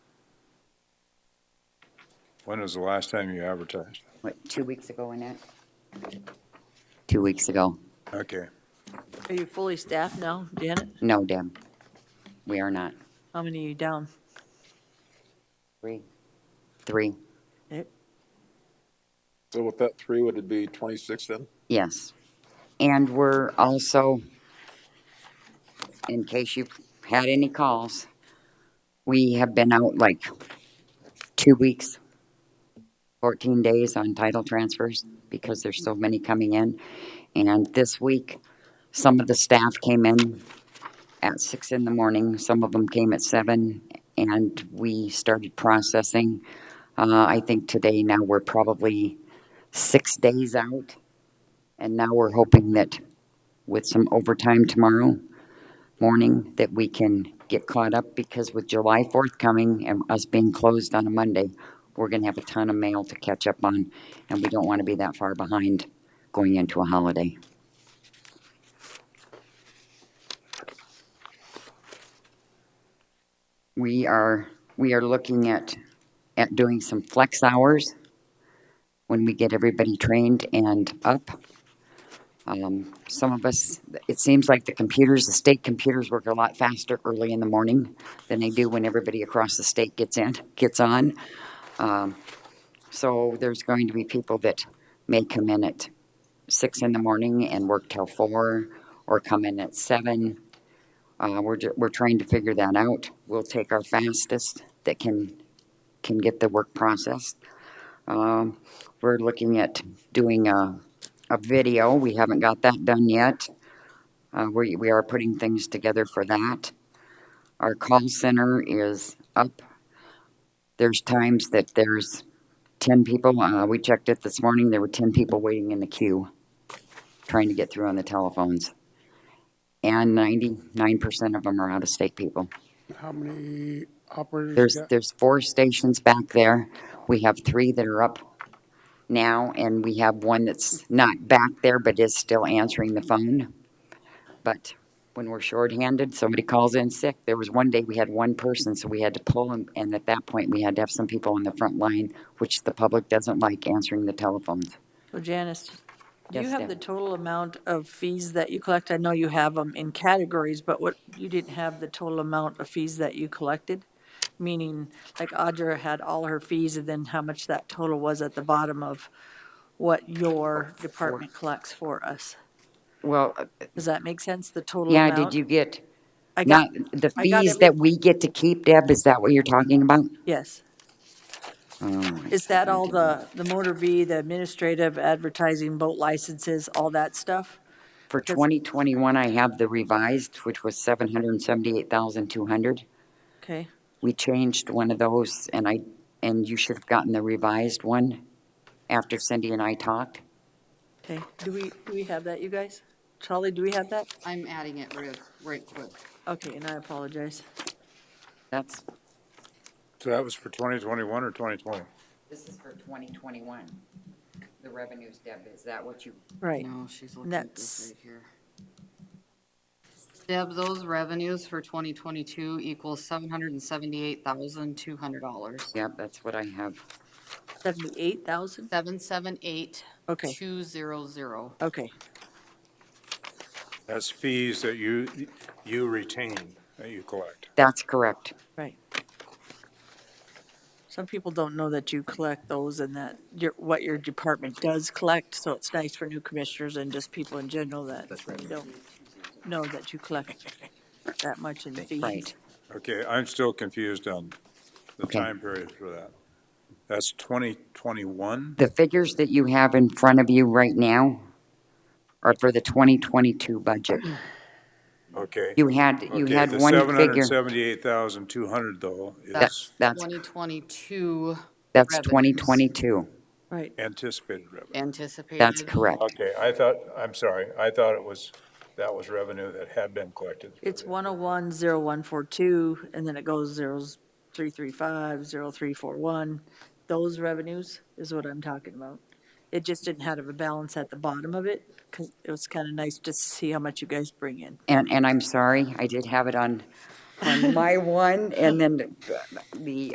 When was the last time you advertised? What, two weeks ago, Annette? Two weeks ago. Okay. Are you fully staffed now, Janet? No, Deb. We are not. How many are you down? Three. Three, Eh, So with that three, would it be twenty-six then? yes. And we're also, in case you had any calls, we have been out like two weeks, 14 days on title transfers because there's so many coming in. And this week, some of the staff came in at six in the morning, some of them came at seven, and we started processing. Uh, I think today now we're probably six days out. And now we're hoping that with some overtime tomorrow morning, that we can get caught up because with July 4th coming and us being closed on a Monday, we're going to have a ton of mail to catch up on, and we don't want to be that far behind going into a holiday. We are, we are looking at, at doing some flex hours when we get everybody trained and up. Um, some of us, it seems like the computers, the state computers work a lot faster early in the morning than they do when everybody across the state gets in, gets on. Um, so there's going to be people that may come in at six in the morning and work till four, or come in at seven. Uh, we're, ju- we're trying to figure that out. We'll take our fastest that can, can get the work processed. Um, we're looking at doing a, a video. We haven't got that done yet. Uh, we, we are putting things together for that. Our call center is up. There's times that there's ten people. Uh, we checked it this morning. There were ten people waiting in the queue, trying to get through on the telephones. And ninety-nine percent of them are out-of-state people. How many operators There's, you got? there's four stations back there. We have three that are up now, and we have one that's not back there but is still answering the phone. But when we're shorthanded, somebody calls in sick. There was one day we had one person, so we had to pull, and, and at that point, we had to have some people on the front line, which the public doesn't like answering the telephones. So Janice, do you Yes, have Deb. the total amount of fees that you collect? I know you have them in categories, but what, you didn't have the total amount of fees that you collected? Meaning, like Audra had all her fees and then how much that total was at the bottom of what your department collects for us. Well, Does that make sense, the total yeah, amount? did you get, uh, I not, got, the I got fees every- that we get to keep, Deb, is that what you're talking about? yes. Oh, Is that all the, the motor V, the administrative, advertising, boat licenses, all that stuff? For 2021, I have the revised, which was 778,200. Okay, We changed one of those, and I, and you should have gotten the revised one after Cindy and I talked. okay. Do we, do we have that, you guys? Charlie, do we have that? I'm adding it real, right quick. Okay, and I apologize. That's, So that was for 2021 or 2020? this is for 2021. The revenues, Deb, is that what you? Right. No, Oh, she's looking at this That's- right here. Deb, those revenues for 2022 equals $778,200. Yep, that's what I have. 78,000? 778. Okay. 200. Okay, That's fees that you, you retain, that you collect. That's correct. right. Some people don't know that you collect those and that your, what your department does collect, so it's nice for new commissioners and just people in general that don't know that you collect that much in fees. Right. Okay, I'm still confused on the Okay. time period for that. That's 2021? The figures that you have in front of you right now are for the 2022 budget. Okay. You had, you Okay, had the one figure. 778,200 though That's, is that's, 2022 that's revenues. 2022. Right, anticipated revenue. anticipated. That's correct. Okay, I thought, I'm sorry, I thought it was, that was revenue that had been collected. for it's the- 1010142, and then it goes 0335, 0341. Those revenues is what I'm talking about. It just didn't have a balance at the bottom of it, because it was kind of nice just to see how much you guys bring in. And, and I'm sorry, I did have it on, on my one, and then the- the